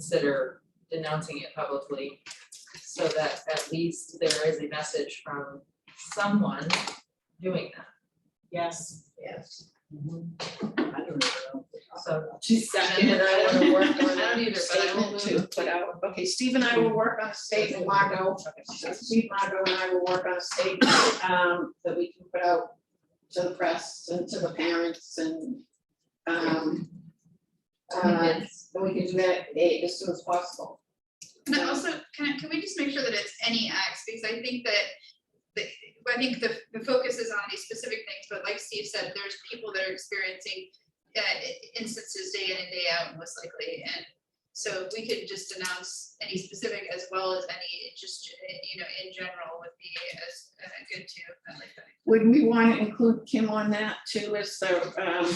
consider denouncing it publicly. So that at least there is a message from someone doing that. Yes. Mm-hmm. Yes. I don't know. So She's second. And I wanna work on I don't a either, but I will statement to put out, okay, Steve and I will work on a statement, Margot. Steve, Margot and I will work on a statement, um, that we can put out to the press and to the parents and, um, uh, and we can do that eh, as soon as possible. And then also, can I, can we just make sure that it's any acts, because I think that, the, I think the, the focus is on these specific things, but like Steve said, there's people that are experiencing uh, instances day in and day out most likely, and so if we could just announce any specific as well as any, it just, eh, you know, in general would be as, uh, good too, I like that. Would we want to include Kim on that too as the um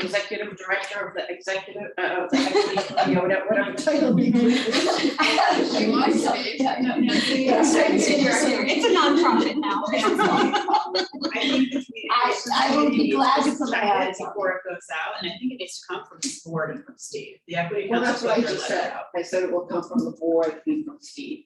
executive director of the executive, uh, of the equity, committee, or whatever, whatever title we give? If you want to be. Yeah, no, no, Yes, it's a nonprofit now. I think if we- I- I will be glad to put my Check it eyes on it. before it goes out, and I think it needs to come from this board and from Steve, the equity. Well, that's what I just said, I said it will come from the board and from Steve.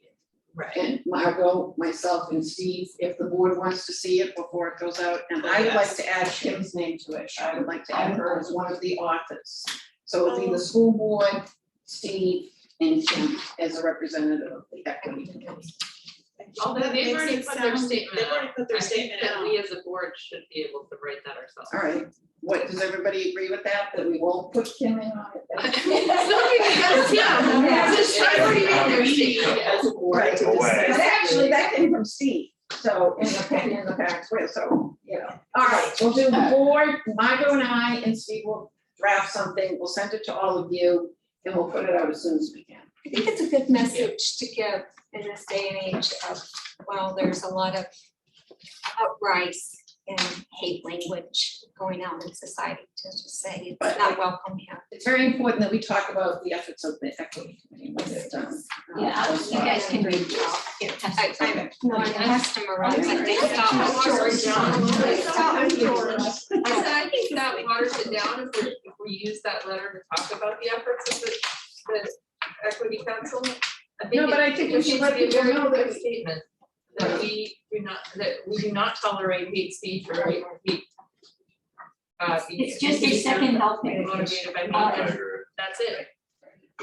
Right. And Margot, myself and Steve, if the board wants to see it before it goes out, and I would like to add Kim's name to it, I would like to add her as one of the authors. So it'll be the school board, Steve, and Kim as a representative of the equity committee. although they've already put their statement They've already out, put their I think statement that out. we as a board should be able to write that ourselves. All right, what, does everybody agree with that, that we won't put Kim in on it? Yeah. It's already in there, Steve. as a board. Right. to decide. But actually, that came from Steve, so in the, in the parents' way, so, you know. All right, we'll do the board, Margot and I and Steve will draft something, we'll send it to all of you, and we'll put it out as soon as we can. I think it's a good message to give in this day and age of, well, there's a lot of outrise and hate language going on in society to just say it's not welcome here. It's very important that we talk about the efforts of the equity committee when they're done. Uh, Yeah, you guys can read it all. I, I'm more than customer rights, I think I'm about sorry, John. I'm I said, I think that waters it down if we, if we use that letter to talk about the efforts of the, the equity council. I think No, but it- I think it we should needs let to be a people very know clear that- Statement that we do not, that we do not tolerate hate speech or hate. hate, uh, It's just a second helping. Motivated by Uh, hate, and that's it.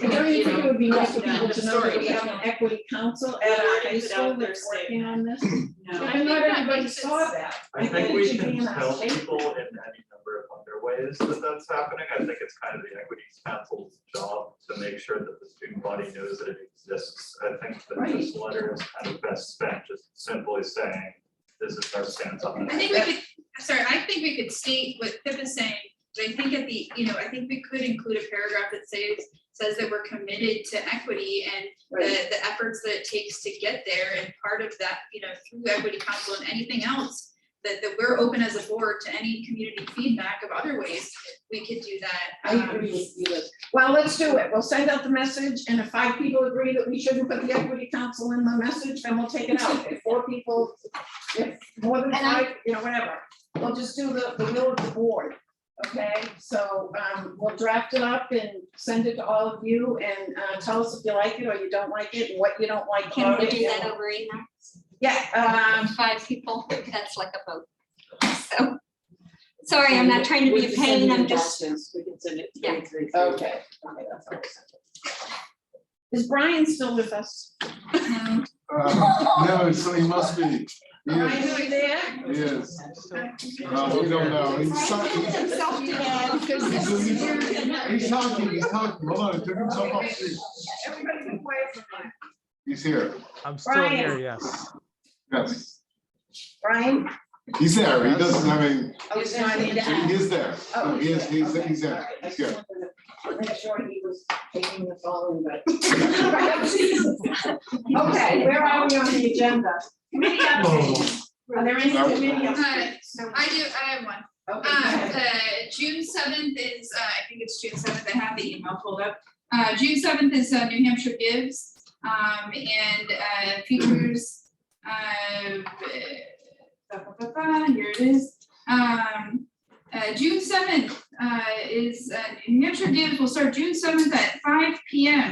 And don't you think it would be nice for You know, people to know that we have an equity council at our high Already put out school their that's working on this? No. Because not everybody saw that. I it think we should be can in our tell statement. people in any number of other ways that that's happening. I think it's kind of the equities council's job to make sure that the student body knows that it exists. I think that this letter is kind of best spent just simply saying, this is our stance on I it. think we could, sorry, I think we could state what Pip is saying, but I think at the, you know, I think we could include a paragraph that says, says that we're committed to equity and Right. the, the efforts that it takes to get there, and part of that, you know, through equity council and anything else, that, that we're open as a board to any community feedback of other ways we could do that. I um, agree with you. Well, let's do it. We'll send out the message and if five people agree that we shouldn't put the equity council in the message, then we'll take it out. If four people, if more than And I- five, you know, whatever. We'll just do the, the will of the board, okay? So, um, we'll draft it up and send it to all of you and, uh, tell us if you like it or you don't like it, and what you don't like Can about we it. do that over email? Yeah, um, Five people, that's like a vote. So, sorry, I'm not trying to be a pain, I'm just We can send it Yeah. three. Okay, okay, that's all. Is Brian still with us? um, Um, No, so he must be, he Brian, is, are you there? he is. No, we don't know, he's talking, he's he's talking, he's talking, hold on, took himself off mute. Everybody's been quiet for a minute. He's here, I'm still here, yes. yes, Brian? he's there, he doesn't, I mean, Oh, he's not in. he is there, Oh, No, he is, he's, he's okay, all right. there, I just he's here. wanted to Make sure he was taking the phone, but. Okay, where are we on the agenda? Committee updates. Are there any committee updates? I do, I have one. Okay, go Uh, ahead. the June seventh is, uh, I think it's June seventh, I have the email pulled up. Uh, June seventh is, uh, New Hampshire Gives, um, and, uh, features, uh, ba- ba- ba- ba, here it is. Um, uh, June seventh, uh, is, uh, New Hampshire Gives will start June seventh at five P M.